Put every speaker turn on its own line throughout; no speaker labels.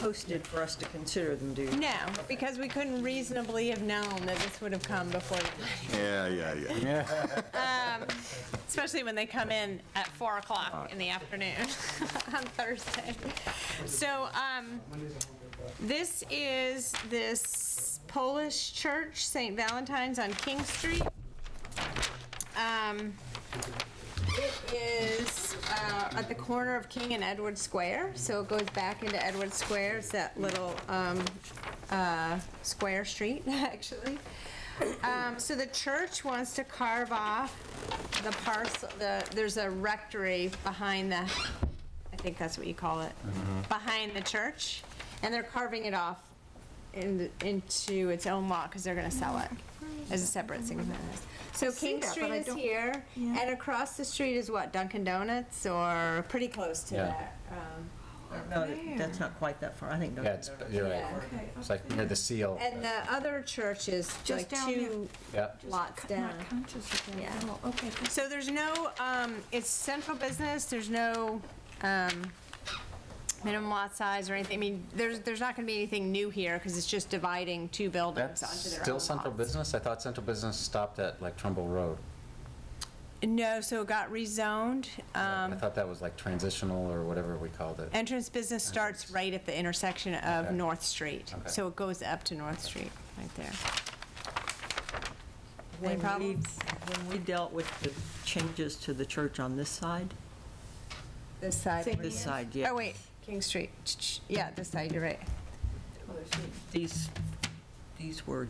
posted for us to consider them, do you?
No, because we couldn't reasonably have known that this would have come before, the planning-
Yeah, yeah, yeah.
especially when they come in at 4 o'clock in the afternoon on Thursday. So um, this is this Polish church, St. Valentine's on King Street. Um, It is uh, at the corner of King and Edward Square, so it goes back into Edward Square, it's that little um, uh, square street, actually. Um, So the church wants to carve off the parcel, the, there's a rectory behind the, I think that's what you call it,
Mm-hmm.
behind the church, and they're carving it off in- into its own lot, because they're gonna sell it as a separate single business. So King
that, but
Street
I
is
don't-
here, and across the street is what, Dunkin' Donuts, or pretty close to
Yeah.
that? um,
No, that- that's not quite that far, I think.
Yeah, it's, you're right. It's like near the seal.
And the other church is like
down
two
Yeah.
lots down.
Not conscious of that at
Yeah.
all. Okay, that's-
So there's no, um, it's central business, there's no, um, minimum lot size or anything. I mean, there's, there's not gonna be anything new here, because it's just dividing two buildings
That's
onto their own
still central
lots.
business? I thought central business stopped at like Trumbull Road.
No, so it got rezoned.
I
Um,
thought that was like transitional or whatever we called it.
entrance business starts right at the intersection of
Okay.
North Street.
Okay.
So it goes up to North Street, right there.
When we-
problems?
When we dealt with the changes to the church on this side,
This side.
this side, yeah.
Oh, wait, King Street. Yeah, this side, you're right.
These, these were,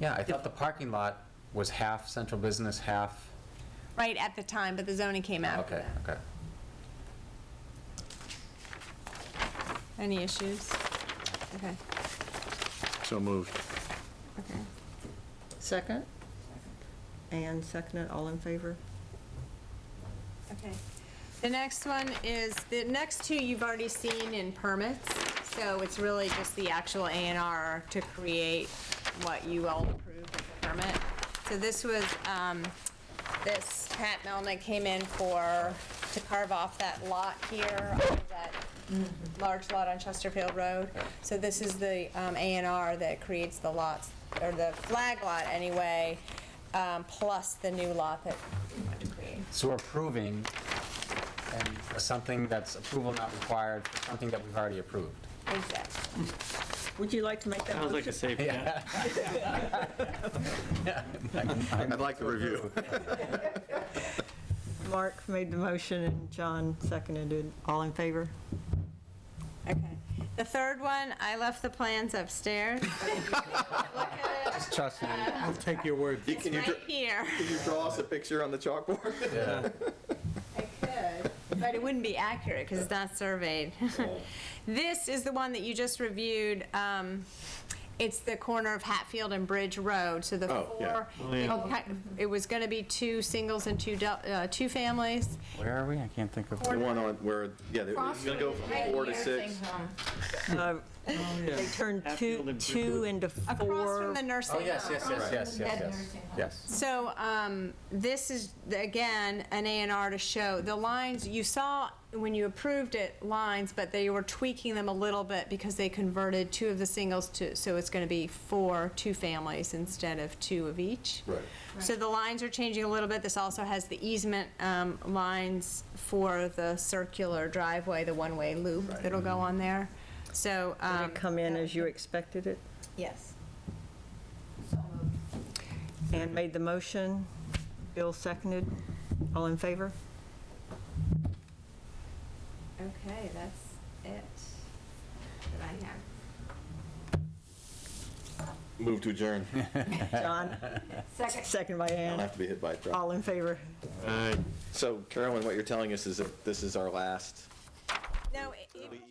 Yeah, I thought the parking lot was half central business, half,
Right at the time, but the zoning came after
Oh, okay,
that.
okay.
Any issues? Okay,
So moved.
okay.
second? And second, it, all in favor?
Okay. The next one is, the next two you've already seen in permits, so it's really just the actual A and R to create what you all approved as a permit. So this was, um, this, Pat Melnick came in for, to carve off that lot here, off of that large lot on Chesterfield Road. So this is the um, A and R that creates the lots, or the flag lot anyway, um, plus the new lot that we wanted to create.
So we're approving and something that's approval not required, for something that we've already approved.
Exactly.
Would you like to make that
Sounds like a
motion?
safe bet.
I'd like to review.
Mark made the motion and John seconded it. All in favor?
Okay. The third one, I left the plans upstairs. Look at it.
Trust me.
I'll take your word.
It's right here.
you draw us a picture on the chalkboard?
I could, But it wouldn't be accurate because it's not surveyed. This is the one that you just reviewed. um, It's the corner of Hatfield and Bridge Road, so the
Oh, yeah.
four. it- It was going to be two singles and two, del- uh, two families.
Where are we? I can't think of.
The one on where, yeah, they're gonna go from four to six.
Uh-huh.
Uh, They turned
Oh, Hatfield
two,
and
two into four.
Across from the nursing
Oh,
home.
yes, yes, yes, yes, yes, yes, yes.
So, um, this is, again, an A and R to show, the lines, you saw when you approved it, lines, but they were tweaking them a little bit because they converted two of the singles to, so it's gonna be four, two families instead of two of each.
Right.
So the lines are changing a little bit, this also has the easement, um, lines for the circular driveway, the one-way loop that'll go on there, so,
Did it
um.
Mm-hmm. come in as you expected it?
Yes.
And made the motion. Bill seconded. All in favor?
Okay, that's it that I have.
Move to adjourn.
John,
Second.
second by
I don't
Ann.
have to be hit by a truck.
All in favor?
So Carolyn, what you're telling us is that this is our last
No, it- it-